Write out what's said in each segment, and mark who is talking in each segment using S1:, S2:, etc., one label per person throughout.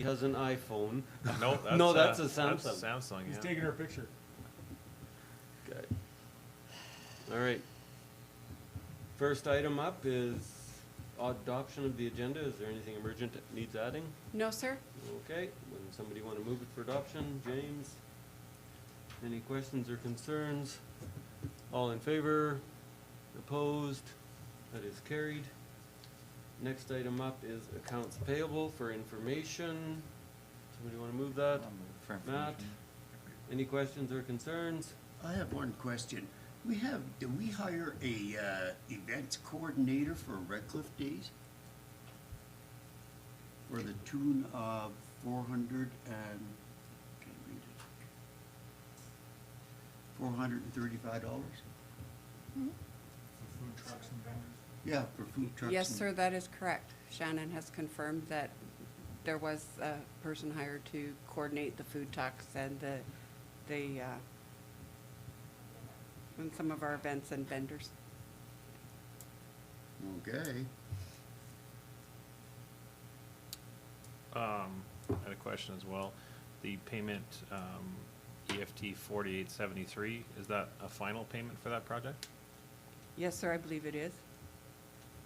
S1: has an iPhone.
S2: No, that's,
S1: No,
S2: uh,
S1: that's a Samsung.
S2: That's Samsung,
S3: He's
S2: yeah.
S3: taking her picture.
S1: Okay. All right. First item up is adoption of the agenda. Is there anything emergent that needs adding?
S4: No, sir?
S1: Okay, would somebody want to move it for adoption? James? Any questions or concerns? All in favor? Opposed? That is carried. Next item up is accounts payable for information. Somebody want to move that?
S5: For
S1: Matt?
S5: information.
S1: Any questions or concerns?
S6: I have one question. We have, do we hire a uh, events coordinator for Red Cliff Days? For the tune of four hundred and, can't read it. Four hundred and thirty-five dollars?
S3: For food trucks and vendors.
S6: Yeah, for food trucks.
S4: Yes,
S6: and-
S4: sir, that is correct. Shannon has confirmed that there was a person hired to coordinate the food talks and the, the, uh, and some of our events and vendors.
S6: Okay.
S2: Um, I had a question as well. The payment, um, EFT forty-eight seventy-three, is that a final payment for that project?
S4: Yes, sir, I believe it is.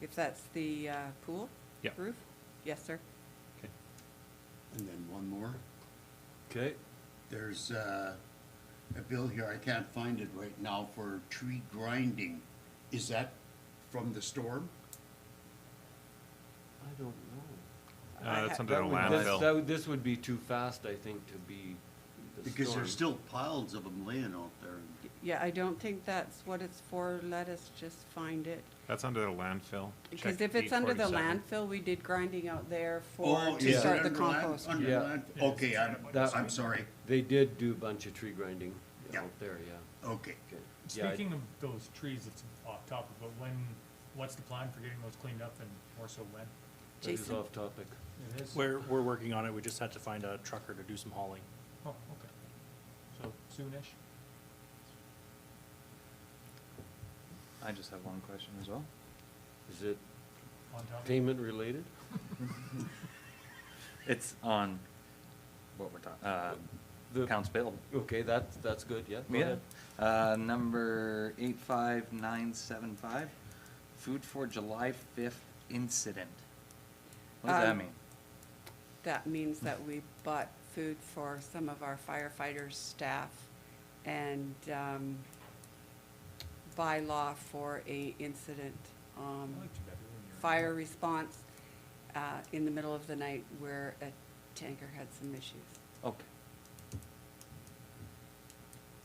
S4: If that's the, uh, pool?
S2: Yeah.
S4: Roof? Yes, sir.
S2: Okay.
S6: And then one more.
S1: Okay.
S6: There's uh, a bill here, I can't find it right now, for tree grinding. Is that from the storm?
S1: I don't know.
S4: I
S2: Uh,
S4: ha-
S2: that's something
S1: That
S2: in
S1: would- this- that
S2: landfill.
S1: would- This would be too fast, I think, to be the
S6: Because there's
S1: storm.
S6: still piles of them laying out there.
S4: Yeah, I don't think that's what it's for. Let us just find it.
S2: That's under the landfill.
S4: Because
S2: Check E
S4: if it's under the
S2: 847.
S4: landfill, we did grinding out there
S6: Oh,
S4: for,
S6: is
S4: to
S6: it
S4: start the
S6: under land-
S4: compost.
S6: under
S1: Yeah.
S6: land- Okay, I'm,
S1: That-
S6: I'm sorry.
S1: They did do a bunch of tree grinding
S6: Yeah.
S1: out there, yeah.
S6: Okay.
S1: Okay. Yeah, I-
S3: Speaking of those trees, it's off topic, but when, what's the plan for getting those cleaned up and more so when?
S1: That is
S4: Jason?
S1: off topic.
S3: It is.
S7: We're, we're working on it, we just had to find a trucker to do some hauling.
S3: Oh, okay. So soonish?
S5: I just have one question as well.
S1: Is it
S3: On topic?
S1: payment related?
S5: It's on what we're talking, uh,
S1: The-
S5: accounts payable.
S1: Okay, that's, that's good, yeah. go
S5: Yeah,
S1: ahead.
S5: uh, number eight five nine seven five, food for July fifth incident. What does that
S4: Um,
S5: mean?
S4: That means that we bought food for some of our firefighters' staff and um, by law for a incident. um,
S3: I liked you better when you were-
S4: Fire response uh, in the middle of the night where a tanker had some issues.
S5: Okay.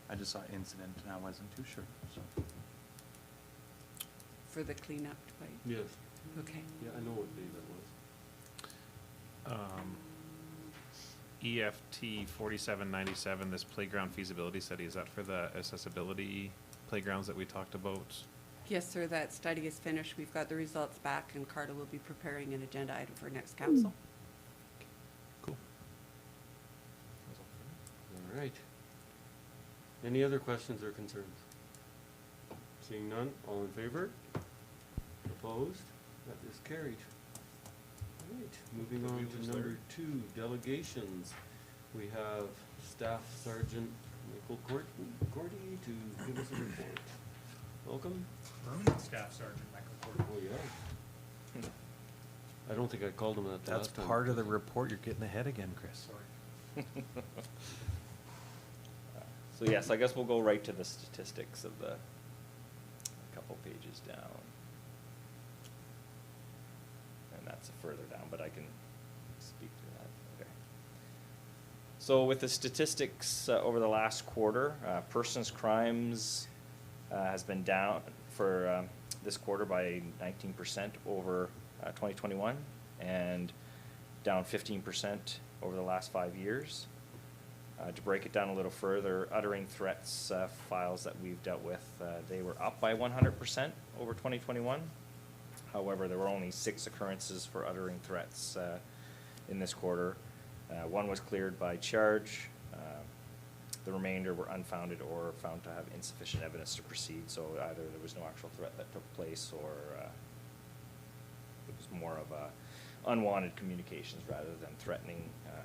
S5: I just saw incident and I wasn't too sure, so.
S4: For the cleanup, right?
S1: Yes,
S4: Okay.
S1: yeah, I know what day that was.
S2: Um, EFT forty-seven ninety-seven, this playground feasibility study, is that for the accessibility playgrounds that we talked about?
S4: Yes, sir, that study is finished. We've got the results back and Carter will be preparing an agenda item for next council.
S2: Cool.
S1: All right. Any other questions or concerns? Seeing none, all in favor? Opposed? That is carried. All right, moving on to number two, delegations. We have Staff Sergeant Michael Court- Cordy to give us a report. Welcome.
S3: Permanent Staff Sergeant Michael Porter.
S1: Oh, yeah. I don't think I called him that last time.
S2: of the report, you're getting ahead again, Chris.
S3: Sorry.
S8: So yes, I guess we'll go right to the statistics of the, a couple pages down. And that's further down, but I can speak to that later. So with the statistics uh, over the last quarter, uh, persons crimes uh, has been down for um, this quarter by 19% over uh, 2021 and down 15% over the last five years. Uh, to break it down a little further, uttering threats uh, files that we've dealt with, uh, they were up by 100% over 2021. However, there were only six occurrences for uttering threats uh, in this quarter. Uh, One was cleared by charge. Uh, The remainder were unfounded or found to have insufficient evidence to proceed, so either there was no actual threat that took place or uh, it was more of a unwanted communications rather than threatening uh,